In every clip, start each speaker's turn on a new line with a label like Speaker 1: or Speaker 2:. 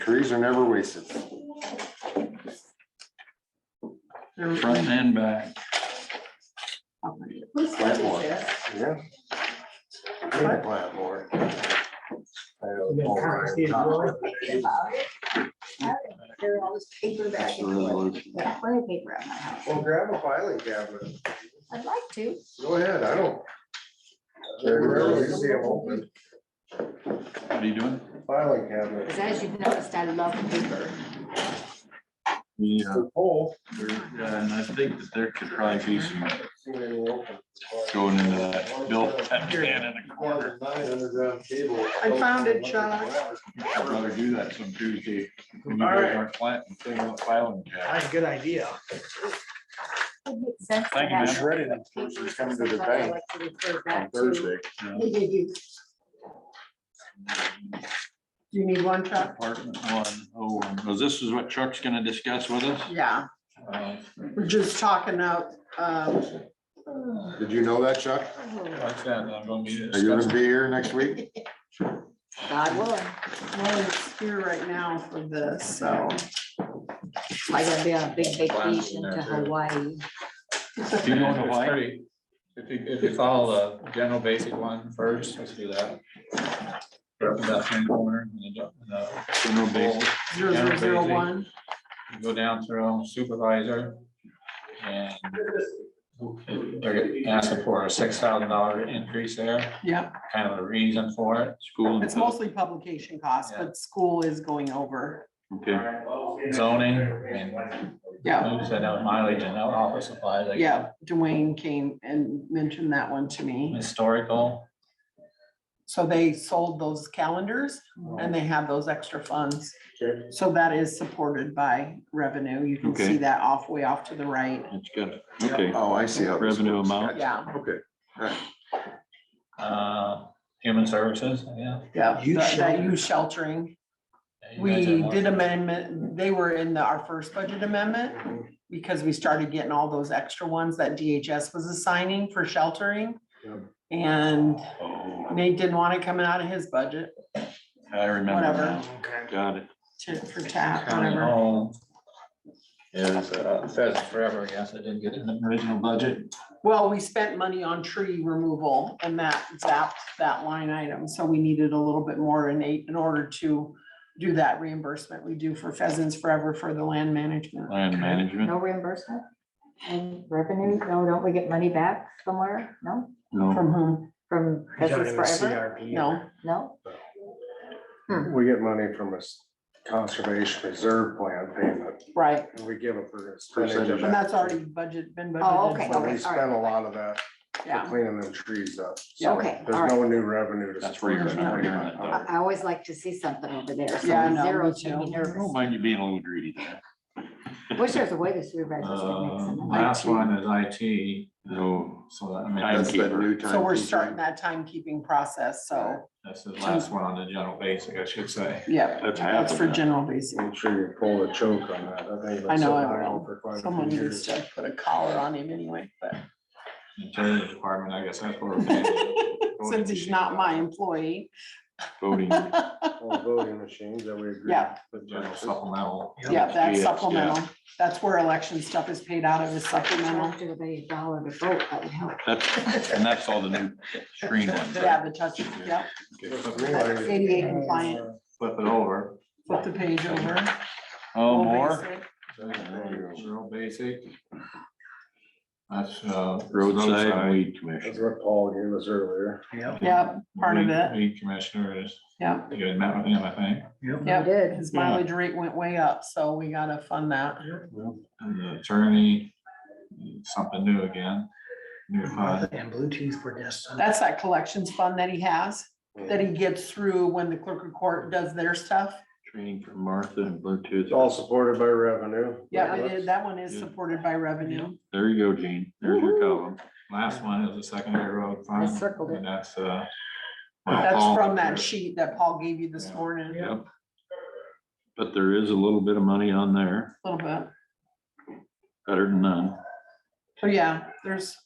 Speaker 1: Careers are never wasted.
Speaker 2: front and back.
Speaker 1: Plant more. Yeah. Try to Plant more. I know the Paul Ryan cop.
Speaker 3: There all this paper back and forth. I have plenty of paper at my house.
Speaker 1: Well, grab a filing cabinet.
Speaker 3: I'd like to.
Speaker 1: Go ahead, I don't. I rarely see them open.
Speaker 2: What are you doing?
Speaker 1: Filing cabinet.
Speaker 3: Because as you've noticed, I love paper.
Speaker 2: Yeah.
Speaker 1: Paul.
Speaker 2: And I think that there could probably be some
Speaker 1: see they were open.
Speaker 2: going into that Bill Pep can in the corner.
Speaker 1: I
Speaker 4: I found it, Chuck.
Speaker 2: I'd rather do that some Tuesday. When you guys aren't planting, clean up filing cabinet.
Speaker 4: That's a good idea.
Speaker 3: It makes sense. to
Speaker 2: Thank you,
Speaker 3: have
Speaker 2: ma'am.
Speaker 1: Shredded them
Speaker 3: papers
Speaker 1: versus coming to the
Speaker 3: sometimes I
Speaker 1: bank
Speaker 3: like to refer
Speaker 1: on
Speaker 3: back to-
Speaker 1: Thursday.
Speaker 4: Do you need one, Chuck?
Speaker 2: Apartment one oh one. Well, this is what Chuck's gonna discuss with us.
Speaker 4: Yeah,
Speaker 2: Uh,
Speaker 4: we're just talking out, um,
Speaker 3: Oh,
Speaker 1: Did you know that, Chuck?
Speaker 2: Like that, I'm gonna be
Speaker 1: Are you gonna
Speaker 2: discussing.
Speaker 1: be here next week?
Speaker 3: God willing,
Speaker 4: well, it's here right now for this, so.
Speaker 3: I gotta be on a big vacation to Hawaii.
Speaker 2: Mm-hmm. Do you know the
Speaker 5: It's
Speaker 2: why?
Speaker 5: pretty- If you, if you follow the general basic one first, let's do that. Start with that hand corner and the do- and the
Speaker 2: General
Speaker 5: bowl.
Speaker 2: basic.
Speaker 4: Zero zero zero one,
Speaker 5: Go down through supervisor. And they're asking for a six thousand dollar increase there,
Speaker 4: yeah,
Speaker 5: kind of a reason for it.
Speaker 2: School. and
Speaker 4: it's mostly publication costs, but school is going over,
Speaker 2: Okay,
Speaker 5: Zoning and
Speaker 4: yeah,
Speaker 5: who said that mileage and out office supplies. like
Speaker 4: yeah, Dwayne came and mentioned that one to me.
Speaker 5: Historical.
Speaker 4: So they sold those calendars and they have those extra funds.
Speaker 1: Okay.
Speaker 4: So that is supported by revenue, you can
Speaker 2: Okay.
Speaker 4: see that off, way off to the right,
Speaker 2: that's good. Okay,
Speaker 1: Oh, I see how. this
Speaker 2: Revenue
Speaker 1: works.
Speaker 2: amount.
Speaker 4: yeah,
Speaker 1: Okay.
Speaker 5: uh, human services, yeah.
Speaker 4: yeah,
Speaker 6: Youth
Speaker 4: that- that
Speaker 6: shelter.
Speaker 4: youth sheltering.
Speaker 5: You guys
Speaker 4: We
Speaker 5: are-
Speaker 4: did amendment, they were in the, our first budget amendment, because we started getting all those extra ones that DHS was assigning for sheltering.
Speaker 1: Yep.
Speaker 4: And
Speaker 2: Oh,
Speaker 4: Nate didn't want it coming out of his budget,
Speaker 2: I remember
Speaker 4: whatever,
Speaker 2: now. Got it.
Speaker 4: to, for tap,
Speaker 5: County
Speaker 4: whatever.
Speaker 5: home. Is, uh, Pheasant Forever, I guess, I didn't get it in the original budget.
Speaker 4: Well, we spent money on tree removal and that zapped that line item, so we needed a little bit more in eight in order to do that reimbursement we do for Pheasants Forever for the land management.
Speaker 2: Land management.
Speaker 3: No reimbursement? And revenue, no, don't we get money back somewhere? No?
Speaker 5: Oh.
Speaker 2: No,
Speaker 4: From whom?
Speaker 3: From Business Forever?
Speaker 4: No,
Speaker 3: No?
Speaker 1: We get money from a s- conservation reserve plan payment,
Speaker 4: right,
Speaker 1: and we give a percentage of
Speaker 4: and
Speaker 1: that.
Speaker 4: that's already budget, been budgeted.
Speaker 3: Oh, okay,
Speaker 1: So
Speaker 4: for,
Speaker 1: we spend a lot of that for
Speaker 4: Yeah,
Speaker 1: cleaning them trees up.
Speaker 4: Yeah,
Speaker 1: So
Speaker 3: okay, all
Speaker 1: There's no new revenue to.
Speaker 2: that's where you're
Speaker 1: support that
Speaker 2: not hearing
Speaker 1: money.
Speaker 2: it though.
Speaker 3: I, I always like to see something over there. so
Speaker 4: Yeah, I know,
Speaker 3: Zero
Speaker 4: me
Speaker 3: should be
Speaker 4: too.
Speaker 2: I
Speaker 5: Oh
Speaker 2: don't
Speaker 3: nervous.
Speaker 2: mind you being a little greedy there.
Speaker 3: Wish there was a way the supervisors could make
Speaker 5: Uh,
Speaker 3: some. money.
Speaker 5: Last one is IT,
Speaker 2: No.
Speaker 5: so that, I mean,
Speaker 1: That's
Speaker 5: that's,
Speaker 1: that new
Speaker 4: so we're
Speaker 1: timekeeping.
Speaker 4: starting that timekeeping process, so,
Speaker 5: that's the last one on the general basic, I should say.
Speaker 4: yeah,
Speaker 2: That's
Speaker 4: that's for
Speaker 2: happening.
Speaker 4: general basic.
Speaker 1: Make sure you pull the choke on that. I think it's
Speaker 4: I know, I
Speaker 1: been
Speaker 4: will.
Speaker 1: on for quite a few
Speaker 4: Someone needs
Speaker 1: years.
Speaker 4: to put a collar on him anyway, but
Speaker 5: Attorney department, I guess that's where. we're headed.
Speaker 4: since he's not my employee,
Speaker 2: Voting.
Speaker 1: All voting machines that we agree.
Speaker 4: Yeah.
Speaker 1: with
Speaker 5: General
Speaker 1: versus-
Speaker 5: supplemental.
Speaker 4: yeah, that's
Speaker 2: Yeah.
Speaker 4: supplemental. That's where election stuff is paid out of is supplemental.
Speaker 3: After the dollar to vote, that would help.
Speaker 2: That's, and that's all the new screen ones. right?
Speaker 4: Yeah, the touch, yeah, that's
Speaker 1: Anyway,
Speaker 4: ADA compliant.
Speaker 1: uh,
Speaker 5: Flip it over.
Speaker 4: Flip the page over. Full
Speaker 2: Oh, more?
Speaker 4: basic.
Speaker 5: General basic. That's, uh.
Speaker 2: Roadside weed
Speaker 1: That's
Speaker 2: commission.
Speaker 1: what Paul gave us earlier.
Speaker 4: Yep, part of it.
Speaker 5: Weed commissioner is,
Speaker 4: Yeah,
Speaker 5: you had met with him, I think.
Speaker 3: I
Speaker 4: yeah.
Speaker 3: did.
Speaker 2: Hmm.
Speaker 4: His mileage rate went way up, so we gotta fund that.
Speaker 5: And the attorney, something new again, new uh, fund.
Speaker 6: Uh, And Bluetooth for desktop.
Speaker 4: That's that collections fund that he has, that he gets through when the clerk of court does their stuff.
Speaker 2: Training for Martha and Bluetooth.
Speaker 1: It's all supported by revenue.
Speaker 4: Yeah, it is- that one is
Speaker 2: Yeah.
Speaker 4: supported by revenue.
Speaker 2: There you go, Gene. There's your column.
Speaker 5: Last one is the secondary road fund.
Speaker 3: circled it.
Speaker 5: And that's, uh.
Speaker 4: That's from that sheet that Paul gave you this
Speaker 5: Yeah.
Speaker 4: morning, a
Speaker 2: Yep. But there is a little bit of money on there,
Speaker 4: little bit.
Speaker 2: better than none.
Speaker 4: So yeah, there's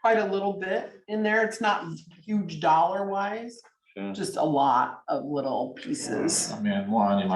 Speaker 4: quite a little bit in there. It's not huge dollar wise,
Speaker 2: Yeah.
Speaker 4: just a lot of little pieces.
Speaker 5: I mean, one, you might